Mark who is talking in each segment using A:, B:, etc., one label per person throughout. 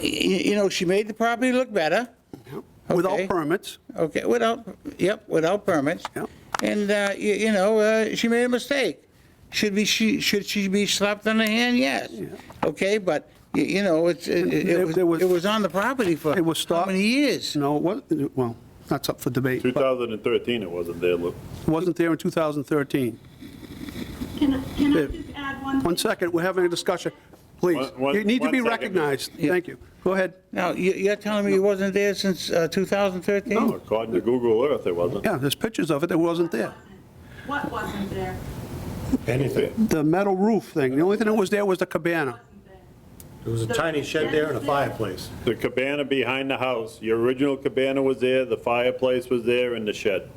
A: y- you know, she made the property look better, Okay.
B: without permits.
A: okay, without, yep, without permits.
B: Yep.
A: And, uh, y- you know, uh, she made a mistake. Should be, she, should she be slapped on the hand? Yes. Okay, but, y- you know, it's, it-
B: There-
A: it
B: there
A: was,
B: was-
A: it was on the property for
B: It was
A: how
B: stopped.
A: many years?
B: No, it wasn't, well, that's up for debate, but
C: 2013, it wasn't there, Lou.
B: it wasn't there in 2013.
D: Can I- can I
B: Yeah.
D: just add
B: One
D: one? thing?
B: second, we're having a discussion. Please,
C: One- one-
B: you need to
C: one
B: be
C: second.
B: recognized.
A: Yeah.
B: Thank you. Go ahead.
A: Now, you- you're telling me it wasn't there since uh, 2013?
C: According to Google Earth, it wasn't.
B: Yeah, there's pictures of it that wasn't there.
D: What wasn't there?
E: Anything.
B: The metal roof thing, the only thing that was there was the cabana.
D: Wasn't there?
E: There was a tiny shed there and a fireplace.
C: The cabana behind the house, your original cabana was there, the fireplace was there, and the shed.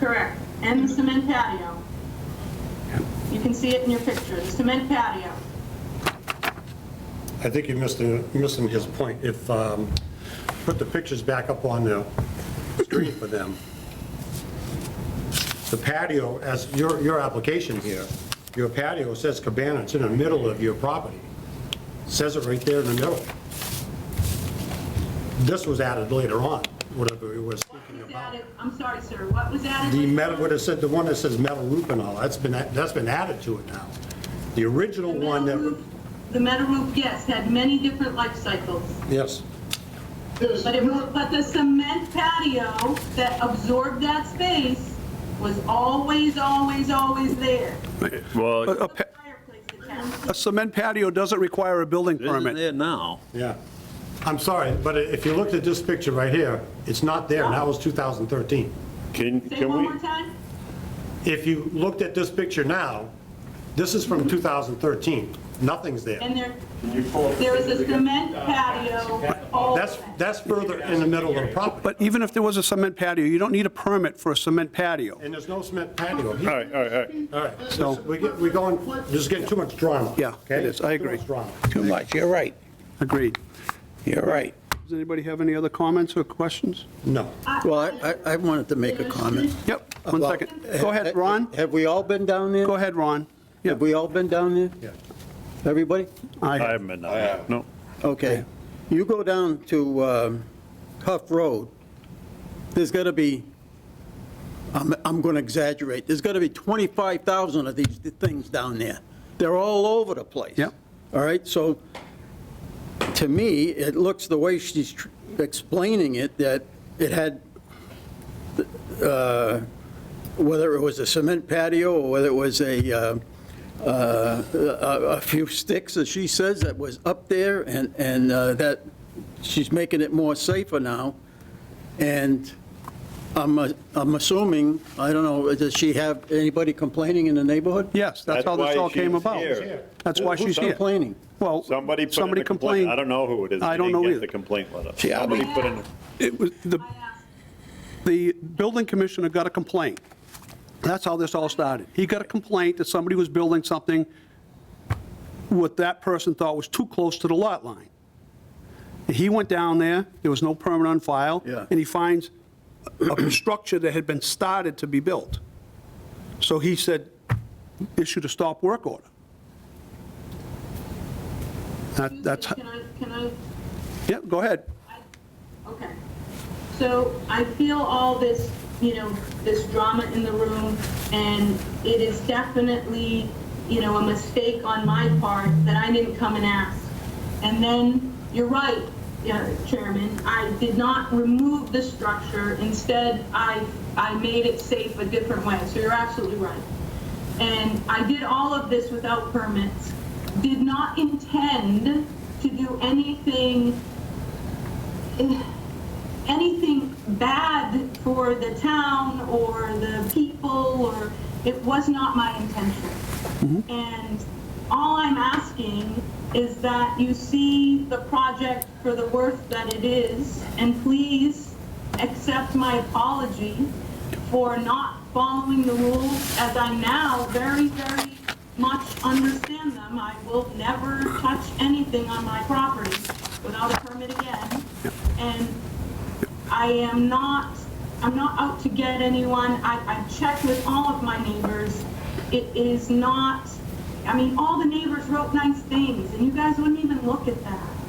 D: Correct. And the cement patio. You can see it in your picture, the cement patio.
E: I think you're missing, missing his point. If, um, put the pictures back up on the screen for them. The patio, as your, your application here, your patio says cabana, it's in the middle of your property. Says it right there in the middle. This was added later on, whatever it was speaking
D: Was
E: about.
D: added- I'm sorry, sir, what was added?
E: The metal, what it said, the one that says metal roof and all, that's been, that's been added to it now. The original
D: The
E: one
D: metal
E: that,
D: roof- The metal roof, yes, had many different life cycles.
E: yes.
D: But it was, but the cement patio that absorbed that space was always, always, always there.
B: A-
C: Well,
B: a oh, pa-
D: The fireplace attached.
B: A cement patio doesn't require a building
F: Isn't
B: permit.
F: there now?
E: Yeah. I'm sorry, but if you looked at this picture right here, it's not there, and that was 2013.
C: can,
D: Say
C: can
D: one more
C: we,
D: time?
E: If you looked at this picture now, this is from 2013. Nothing's there.
D: And there, there is a cement patio, all
E: That's, that's further in the middle of the property,
B: But even if there was a cement patio, you don't need a permit for a cement patio.
E: and there's no cement patio
C: all
E: here.
C: right, all right, all right.
E: All right,
B: So-
E: so we're get- we're going, just getting too much drama.
B: Yeah, it
E: okay?
B: is. I agree.
E: Too much drama.
A: Too much, you're right,
B: Agreed.
A: you're right.
B: Does anybody have any other comments or questions?
E: No.
G: Well, I- I, I wanted to make a comment.
B: Yep, one
G: Well,
B: second. Go ahead, Ron.
G: Have we all been down there?
B: Go ahead, Ron. Yeah,
G: Have we all been down there?
E: Yeah.
G: Everybody?
C: I
B: I,
C: haven't been down there, no.
G: Okay. You go down to um, Huff Road, there's got to be, I'm, I'm going to exaggerate, there's got to be 25,000 of these things down there. They're all over the place.
B: Yep.
G: All right, so to me, it looks the way she's tr- explaining it, that it had, uh, whether it was a cement patio or whether it was a, uh, uh, a a few sticks, as she says, that was up there and, and uh, that she's making it more safer now. And I'm, uh, I'm assuming, I don't know, does she have anybody complaining in the neighborhood?
B: yes, that's how this
C: why
B: all came
C: she's
B: about.
C: here.
B: That's why she's
G: Who's
B: here.
G: complaining?
B: Well,
C: Somebody put in
B: somebody
C: a complaint,
B: complained.
C: I don't know who it is.
B: I
C: We
B: don't
C: didn't
B: know
C: get
B: either.
C: The complaint letter.
A: See, I'll be-
C: Somebody put in,
B: It was, the, the building commissioner got a complaint. That's how this all started. He got a complaint that somebody was building something what that person thought was too close to the lot line. He went down there, there was no permit on file.
G: Yeah.
B: And he finds a structure that had been started to be built. So he said, issued a stop work order. That, that's,
D: Can I, can I
B: yeah, go ahead.
D: Okay. So I feel all this, you know, this drama in the room, and it is definitely, you know, a mistake on my part that I didn't come and ask. And then, you're right, yeah, Chairman, I did not remove the structure. Instead, I, I made it safe a different way, so you're absolutely right. And I did all of this without permits, did not intend to do anything anything bad for the town or the people, or, it was not my intention. And all I'm asking is that you see the project for the worth that it is, and please accept my apology for not following the rules as I now very, very much understand them. I will never touch anything on my property without a permit again. And I am not, I'm not out to get anyone. I, I've checked with all of my neighbors. It is not, I mean, all the neighbors wrote nice things, and you guys wouldn't even look at that.